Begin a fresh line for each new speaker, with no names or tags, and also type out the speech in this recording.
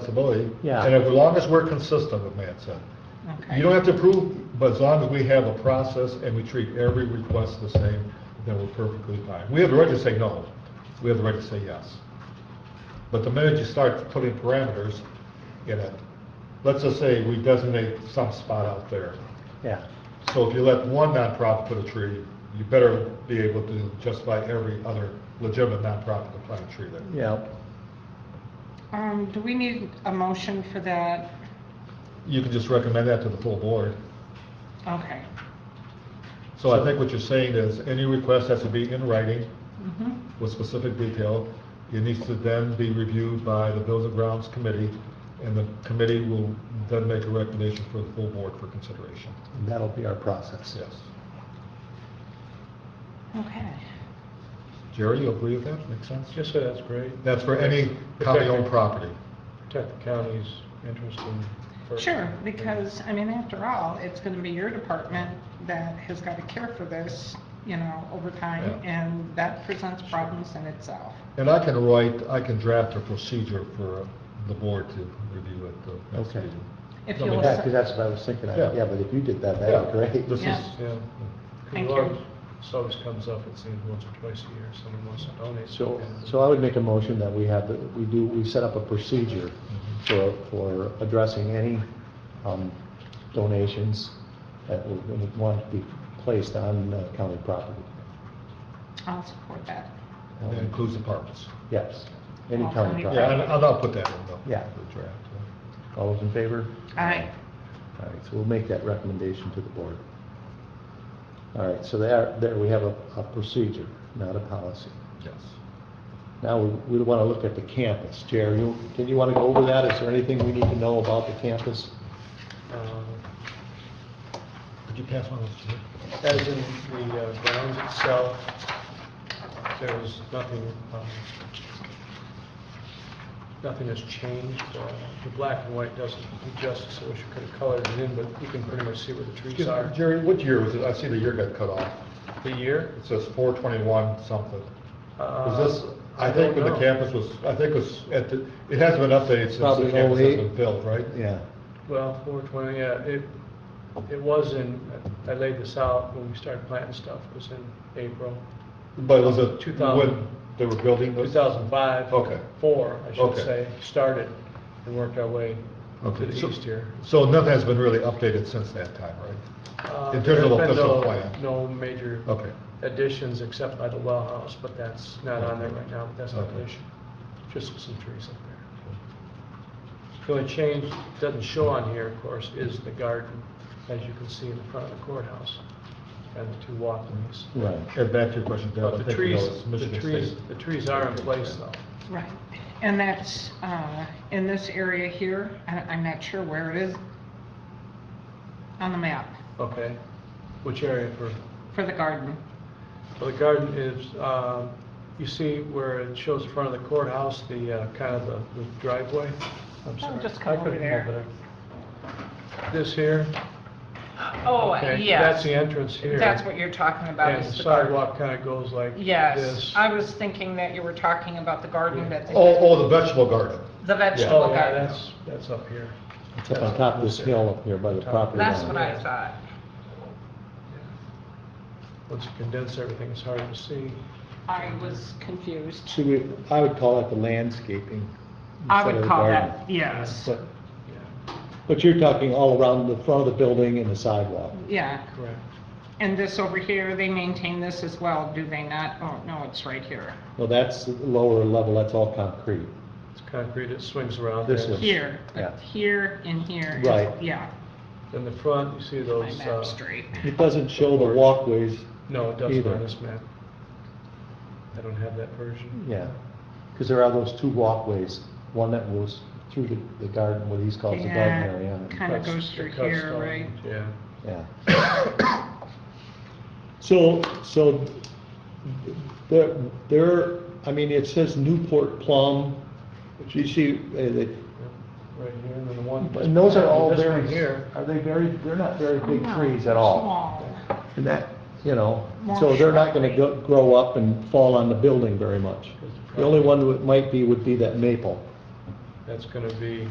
flexibility.
Yeah.
And as long as we're consistent, what Matt said. You don't have to approve, but as long as we have a process and we treat every request the same, then we're perfectly fine. We have the right to say no, we have the right to say yes. But the minute you start putting parameters in it, let's just say we designate some spot out there.
yeah.
So if you let one nonprofit put a tree, you better be able to justify every other legitimate nonprofit to plant a tree there.
Yeah,
Um, do we need a motion for that?
You can just recommend that to the full board.
Okay.
So I think what you're saying is, any request has to be in writing
Mhm.
with specific detail. It needs to then be reviewed by the Bills and Grounds Committee, and the committee will then make a recommendation for the full board for consideration.
that'll be our process.
Yes.
Okay.
Jerry, you agree with that? Makes sense?
Just say that's great.
That's for any county-owned property.
Protect the county's interest in.
Sure, because, I mean, after all, it's gonna be your department that has gotta care for this, you know, over time,
Yeah.
and that presents problems in itself.
And I can write, I can draft a procedure for the board to review at the next
Okay.
meeting.
If
No,
you'll
but that-
Yeah,
accept-
'cause that's what I was thinking, I-
Yeah.
yeah, but if you did that, that'd
Yeah,
be
This
great.
is,
Yeah.
yeah.
Thank
It always-
you.
This always comes up, it seems, once or twice a year, someone wants to donate.
So,
something.
so I would make a motion that we have, we do, we set up a procedure
Mm-hmm.
for, for addressing any um, donations that would want to be placed on uh, county property.
I'll support that.
And that includes apartments.
Yes, any
All
county
county
Yeah,
property.
and and I'll put that in the
Yeah.
the draft. yeah.
All those in favor?
All right.
All right, so we'll make that recommendation to the board. All right, so there, there we have a, a procedure, not a policy.
Yes.
Now, we, we want to look at the campus. Jerry, you, did you want to go over that? Is there anything we need to know about the campus?
Uh,
Could you pass one of those to me?
As in the uh, grounds itself, there was nothing, um, nothing has changed. Uh, The black and white doesn't do justice, I wish we could have colored it in, but you can pretty much see where the trees
Excuse me,
are.
Jerry, what year was it? I see the year got cut off.
The year?
It says four twenty-one something.
uh,
Was this, I think when the
don't know.
campus was, I think it was at the, it hasn't been updated since the
Probably
campus has
08.
been built, right?
Yeah.
Well, four twenty, yeah, it, it was in, I laid this out when we started planting stuff, it was in April,
But was it
2000.
when they were building
two
this?
thousand five.
Okay.
Four, I should
Okay.
say, started and worked our way to
Okay,
the
so-
east here.
So nothing has been really updated since that time, right?
Uh,
In terms
there's
of
been
official
no-
plan.
No major
Okay.
additions except by the well house, but that's not on there right now, but that's not
Okay.
an issue. Just some trees up there. The only change, doesn't show on here, of course, is the garden, as you can see in the front of the courthouse, and the two walkways.
Right.
And back to your question, Deb, I
But the
think you know,
trees,
it's
the
Michigan
trees,
State.
the trees are in place though.
Right, and that's, uh, in this area here, I, I'm not sure where it is on the map
Okay. Which area for,
for the garden.
well, the garden is, um, you see where it shows the front of the courthouse, the, uh, kind of the the driveway? I'm
Oh,
sorry.
just come
I
over
couldn't
there.
over there. This here?
Oh,
okay, That's
yes.
the entrance here.
That's what you're talking about.
And the
is the garden.
sidewalk kind of goes like this.
Yes, I was thinking that you were talking about the garden, but
Oh, oh, the vegetable garden.
the vegetable
Oh, yeah,
garden.
that's, that's up here.
It's up on top of this hill up here by the property line.
That's what I thought.
Once you condense everything, it's hard to see.
I was confused.
Should we, I would call it the landscaping.
I
instead of
would
the
call
garden.
that, yes,
But,
Yeah,
but you're talking all around the front of the building and the sidewalk.
yeah.
correct.
And this over here, they maintain this as well, do they not? Oh, no, it's right here.
Well, that's lower level, that's all concrete.
It's concrete, it swings around.
This
there.
is-
Here,
Yeah.
here and here. is-
Right.
Yeah,
In the front, you see
my
those,
map
uh,
straight.
It doesn't show the walkways,
no, it doesn't
Either.
on this map. I don't have that version.
yeah, because there are those two walkways, one that goes through the, the garden, what he's called the garden
Yeah,
area. and-
Kinda
Cuts-
goes through
it cuts
here,
down,
right?
Yeah.
Yeah. So, so there, there, I mean, it says Newport plum, Do you see, uh, the-
Right here, and then the one.
and those are all
This one
very,
Here,
are they very, they're not very big
No,
trees at all.
Oh, Small.
And that, you know,
More
so they're not gonna
shrubbery.
go, grow up and fall on the building very much. The only one that might be would be that maple.
that's gonna be